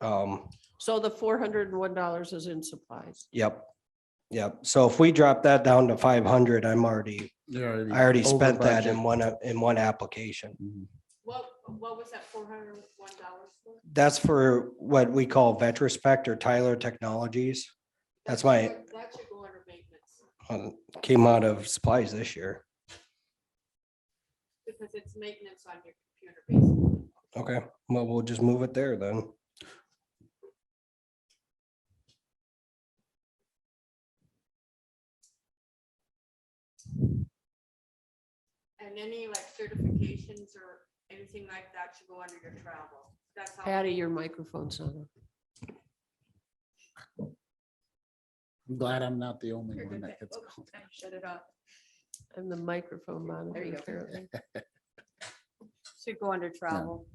Um, So the four hundred and one dollars is in supplies. yep, yep. So if we drop that down to five hundred, I'm already, Yeah. I already spent that in one, a- in one application. What, what was that four hundred and one dollars for? That's for what we call Vetrospect or Tyler Technologies. That's That should my- go- That should go under maintenance, Uh, Came out of supplies this year. because it's maintenance on your computer basically. Okay, well, we'll just move it there then. And any like certifications or anything like that should go under your travel. That's how. Patty, your microphone's on. I'm glad I'm not the only You're one good that there. gets. Oops, I Shut it off. And the microphone There you monitor go. apparently. Should go under travel,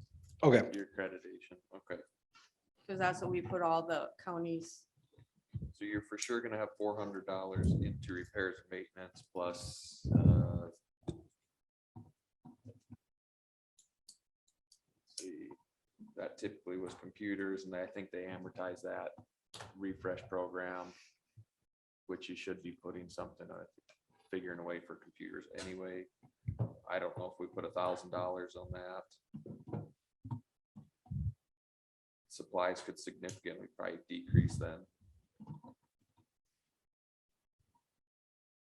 Okay, Your accreditation, okay. because that's what we put all the counties. So you're for sure gonna have four hundred dollars into repairs and maintenance plus, uh. let's See, that typically was computers and I think they amortize that refresh program. Which you should be putting something on, figuring away for computers anyway. I don't know if we put a thousand dollars on that. Supplies could significantly probably decrease then.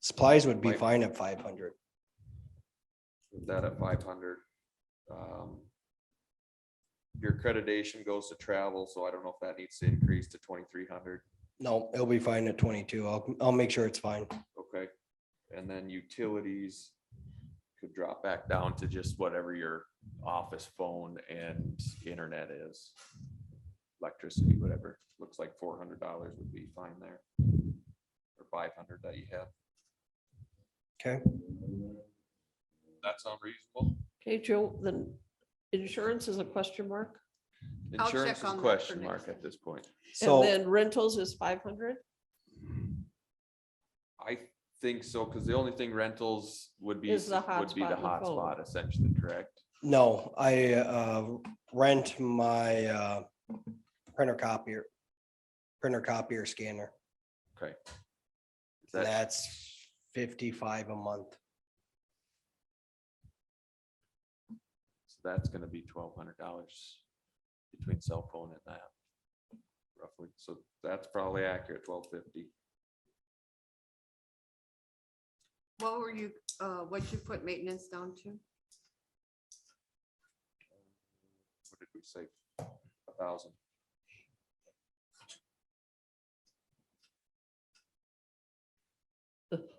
supplies would be Like- fine at five hundred. Put that at five hundred. Um, Your accreditation goes to travel, so I don't know if that needs to increase to twenty-three hundred, No, it'll be fine at twenty-two. I'll, I'll make sure it's fine. okay? And then utilities could drop back down to just whatever your office phone and internet is. Electricity, whatever, looks like four hundred dollars would be fine there. Or five hundred that you have. Okay. That's unreasonable. Okay, Joe, the insurance is a question mark. I'll Insurance check is a on that for question next mark at time. this point. And So, then rentals is five hundred. I think so, because the only thing rentals would be, Is the would be the hotspot and phone. hotspot essentially, correct? no, I, uh, rent my, uh, printer copier, printer copier scanner. Okay. Is that- That's fifty-five a month. so that's gonna be twelve hundred dollars between cell phone and that. Roughly, so that's probably accurate, twelve fifty. What were you, uh, what you put maintenance down to? What did we say? A thousand.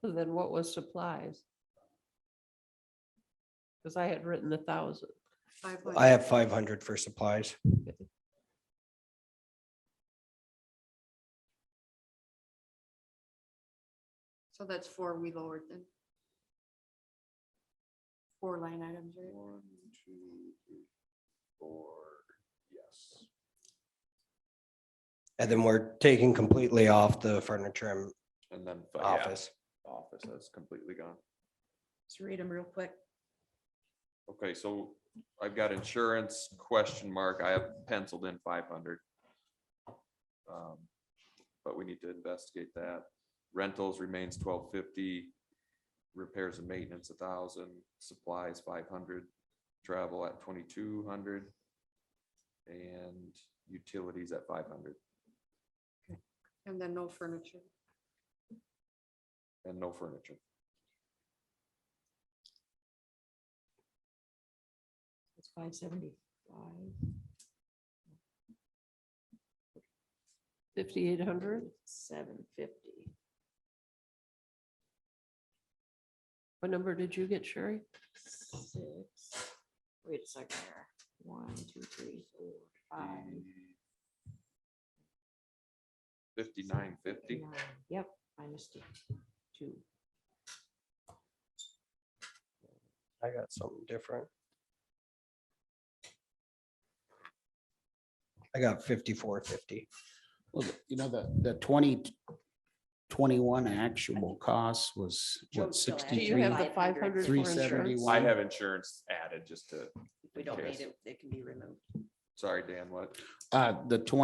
Then what was supplies? Because I had written a thousand. I have five hundred for supplies. So that's four we lowered then. Four line items, right? One, two, three, four, yes. And then we're taking completely off the furniture and And then, but yeah, office. office has completely gone. Let's read them real quick. Okay, so I've got insurance question mark. I have penciled in five hundred. Um, But we need to investigate that. Rentals remains twelve fifty. Repairs and maintenance a thousand, supplies five hundred, travel at twenty-two hundred. And utilities at five hundred And then no furniture. and no furniture. It's five seventy-five. Fifty-eight hundred? Seven fifty. What number did you get, Sherry? Six. Wait a second here. One, two, three, four, five. Fifty-nine fifty, nine. Yep, I missed it. Two. I got something different. I got fifty-four fifty. Well, the- You know, the, the twenty twenty-one actual cost was what, Joe's still Do asking. you sixty-three? have the five hundred for 371. insurance? I have insurance added just to, We don't Okay. need it, it can be removed. sorry, Dan, what? Uh, the twenty